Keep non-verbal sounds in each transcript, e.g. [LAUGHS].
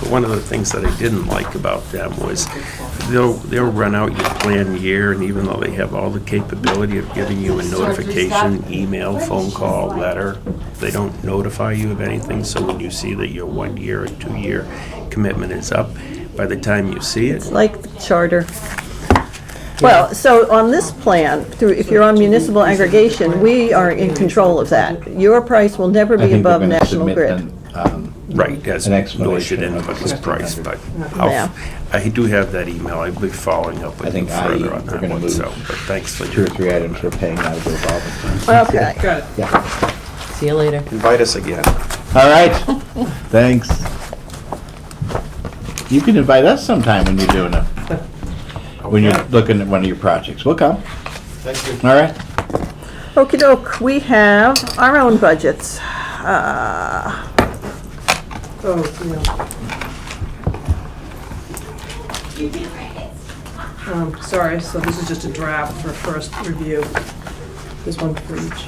But One of the things that I didn't like about them was they'll, they'll run out your plan year, and even though they have all the capability of giving you a notification, email, phone call, letter, they don't notify you of anything, so when you see that your one-year or two-year commitment is up, by the time you see it, like the charter. Well, so on this plan, through, if you're on municipal aggregation, we are in control of that. Your price will never I be think above they're gonna national submit grid. an, um, right, that's An noted explanation in of anybody's price, but Yeah. I'll, I do have that email, I'll be following up with I you think I- further on we're that gonna one, move so, but thanks for two your or three items we're paying out of the revolving fund. Okay. Got it. Yeah. See you later. Invite us again. All [LAUGHS] right, thanks. You can invite us sometime when you're doing it, when you're looking at one of your projects. We'll come. Thank you. All right. okey doke, we have our own budgets. Oh, yeah. Um, sorry, so this is just a draft for first review. There's one for each.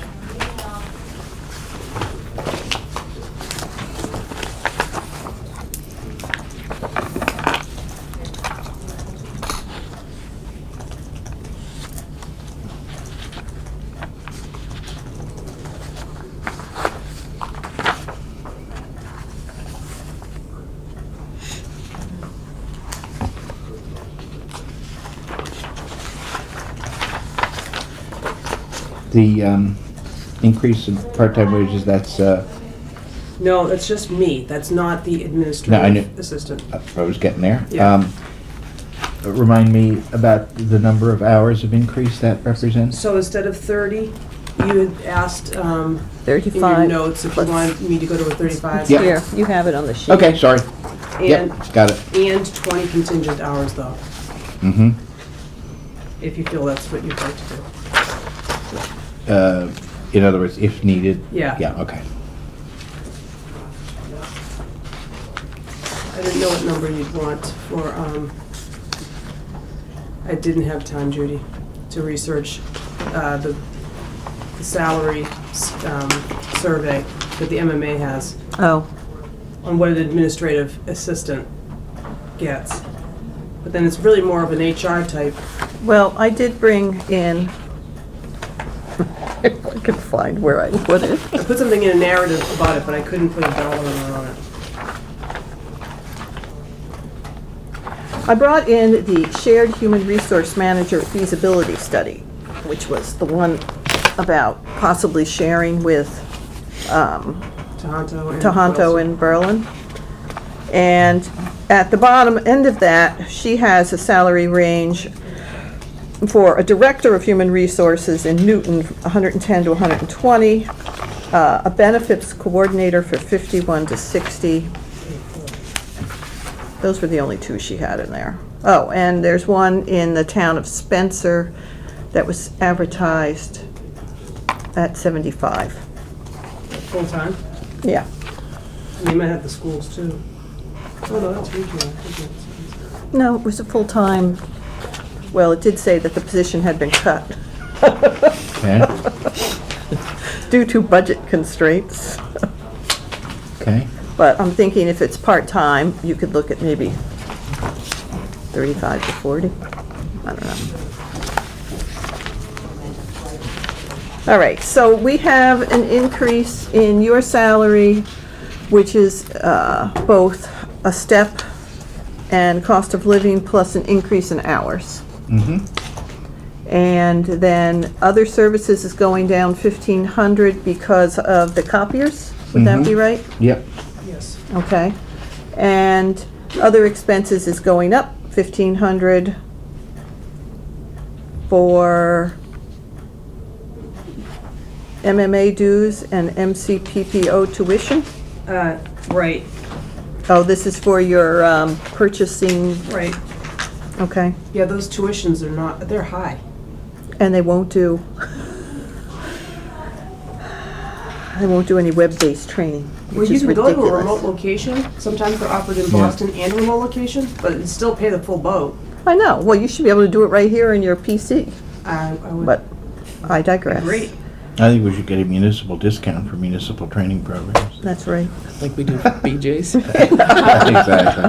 The um, increase in part-time wages, that's, uh, No, that's just me. That's not the knew- administrative assistant. I was getting there. Yeah. Um, Remind me about the number of hours of increase that represents? So instead of 30, you had asked um, in your 35. notes if you Let's- wanted me to go to a 35. Yeah. Here, you have it on the sheet. Okay, sorry. And, Yep, got it. and 20 contingent hours though, Mm-hmm. if you feel that's what you'd like to do. Uh, In other words, if needed? Yeah. Yeah, okay. I didn't know what number you'd want for, um, I didn't have time, Judy, to research, uh, the the salary, s- um, survey that the MMA has Oh, on what an administrative assistant gets. But then it's really more of an HR type. well, I did bring in, if [LAUGHS] I could find where I put it. I put something in a narrative about it, but I couldn't put a dollar amount on it. I brought in the Shared Human Resource Manager feasibility study, which was the one about possibly sharing with um, Tohoto and. Tohoto in Berlin. And at the bottom end of that, she has a salary range for a Director of Human Resources in Newton, 110 to 120, uh, a Benefits Coordinator for 51 to 60. Those were the only two she had in there. Oh, and there's one in the town of Spencer that was advertised at 75. Full time. Yeah. And they might have the schools too. Oh, no, that's regional. I think that's- No, it was a full-time, well, it did say that the position had been cut Okay, due to budget constraints. okay. But I'm thinking if it's part-time, you could look at maybe 35 to 40. I don't know. All right, so we have an increase in your salary, which is uh, both a step and cost of living plus an increase in hours. Mm-hmm. And then other services is going down fifteen hundred because of the copiers, would that be right? Yep, Yes. Okay. And other expenses is going up fifteen hundred for MMA dues and MCPPO tuition. Uh, right, Oh, this is for your um, purchasing, right. okay, Yeah, those tuitions are not, they're high. and they won't do, they won't do any web-based training, Well, which you is can go to a remote ridiculous. location, sometimes they're offered in Yeah. Boston and remote location, but it'd still pay the full boat. I know, well, you should be able to do it right here on your PC, I, I would but I digress. agree. I think we should get a municipal discount for municipal training programs. That's right. like we do for [LAUGHS] BJ's. Exactly.